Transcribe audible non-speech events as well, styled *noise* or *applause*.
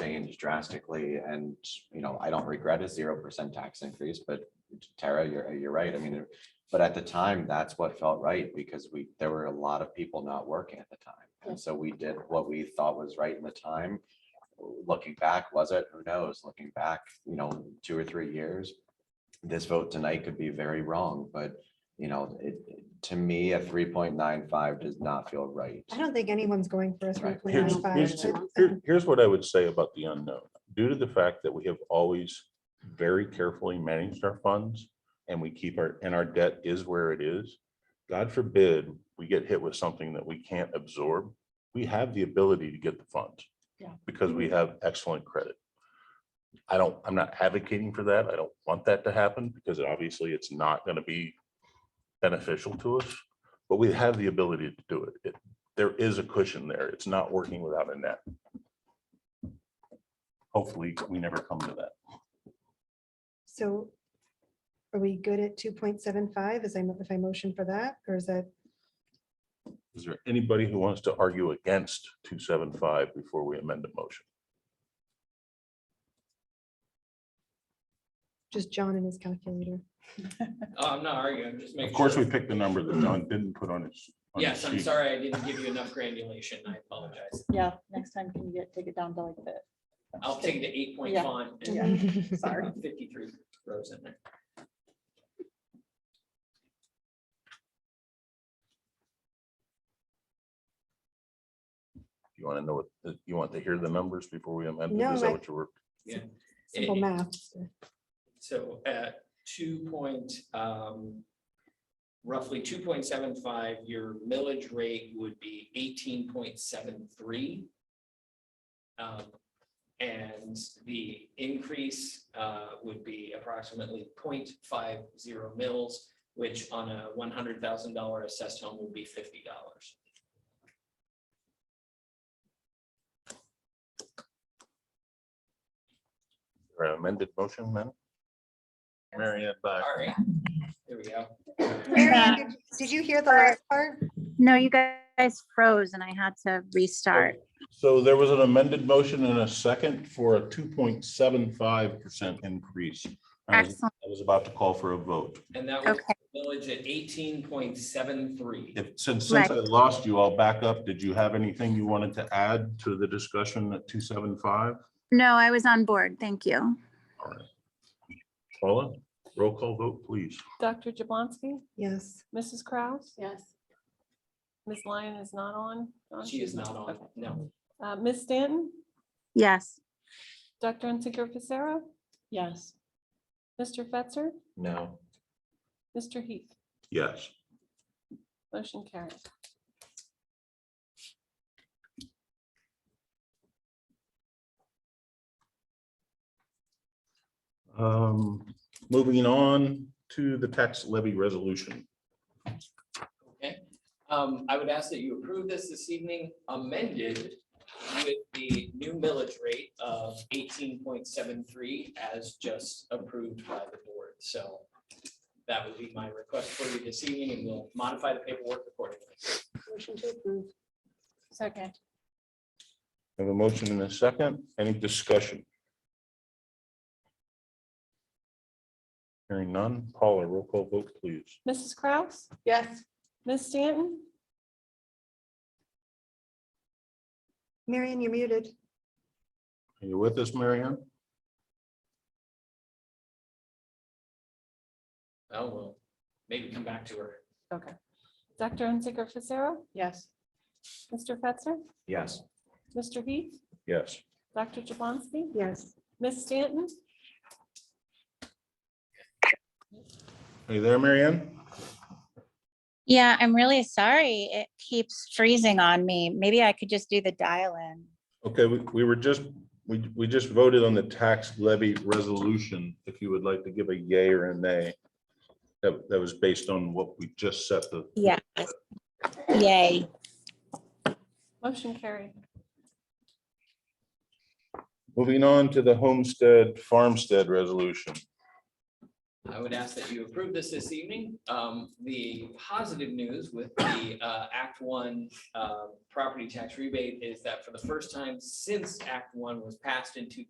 change drastically and, you know, I don't regret a zero percent tax increase, but Tara, you're, you're right. I mean, it- but at the time, that's what felt right because we, there were a lot of people not working at the time. And so we did what we thought was right in the time. Looking back, was it? Who knows? Looking back, you know, two or three years, this vote tonight could be very wrong, but you know, it, to me, a three point nine five does not feel right. I don't think anyone's going for a three Right. point Here's, nine here's, five. here- here's what I would say about the unknown. Due to the fact that we have always very carefully managed our funds and we keep our, and our debt is where it is. God forbid, we get hit with something that we can't absorb. We have the ability to get the funds. Yeah. Because we have excellent credit. I don't, I'm not advocating for that. I don't want that to happen because obviously it's not going to be beneficial to us. But we have the ability to do it. It there is a cushion there. It's not working without a net. Hopefully, we never come to that. So are we good at two point seven five? Is I, mo- if I motion for that, or is that, Is there anybody who wants to argue against two seven five before we amend the motion? just John and his calculator? Oh, I'm not arguing, just making. Of course, sure. we picked the number that John didn't put on his. on his Yes, I'm sheet. sorry, I didn't give you enough granulation, I apologize. Yeah, next time can you get, take it down to like the, I'll take the eight point Yeah. font Yeah. and *laughs* *laughs* uh, sorry. fifty-three rows in there. You want to know what, you want to hear the numbers before we amend? it? No, Is that I- what you were? Simple Eh. It- math. So at two point, um, roughly two point seven five, your millage rate would be eighteen point seven three. Um, And the increase, uh, would be approximately 0.50 mils, which on a one hundred thousand dollar assessed home would be fifty dollars. or amended motion, man? Mary Ann Black. All right, there we go. Mary Ann, did- Did you hear the last part? No, you guys froze and I had to restart. So there was an amended motion and a second for a two point seven five percent increase. I was- Excellent. I was about to call for a vote. And that was Okay. millage at eighteen point seven three. If, since, since I Right. lost you, I'll back up. Did you have anything you wanted to add to the discussion at two seven five? No, I was on board. Thank you. Paula, roll call vote, please. Dr. Jablonski, Yes. Mrs. Kraus, Yes. Ms. Lyon is not on. Dawn, She is she's not on, Okay. no. Uh, Ms. Stanton, Yes, Dr. Untaker Fisera, Yes. Mr. Fetzer, No. Mr. Heath, Yes. motion carries. Um, moving on to the tax levy resolution. Okay, um, I would ask that you approve this this evening amended with the new millage rate of eighteen point seven three as just approved by the board, so. That would be my request for you this evening, and we'll modify the paperwork accordingly. Motion to approve. Second. I Have a motion and a second. Any discussion? Hearing none. Paula, roll call vote, please. Mrs. Kraus, Yes. Ms. Stanton, Mary Ann, you're muted. Are you with us, Marianne? Oh, well, maybe come back to her. okay. Dr. Untaker Fisera, Yes. Mr. Fetzer, Yes. Mr. Heath, Yes. Dr. Jablonski, Yes. Ms. Stanton, Are you there, Marianne? yeah, I'm really sorry. It keeps freezing on me. Maybe I could just do the dial in. Okay, we, we were just, we, we just voted on the tax levy resolution. If you would like to give a yay or a nay. That, that was based on what we just set the, Yes. Yay. motion carried. moving on to the homestead farmstead resolution. I would ask that you approve this this evening. Um, The positive news with the uh, Act One uh, property tax rebate is that for the first time since Act One was passed in two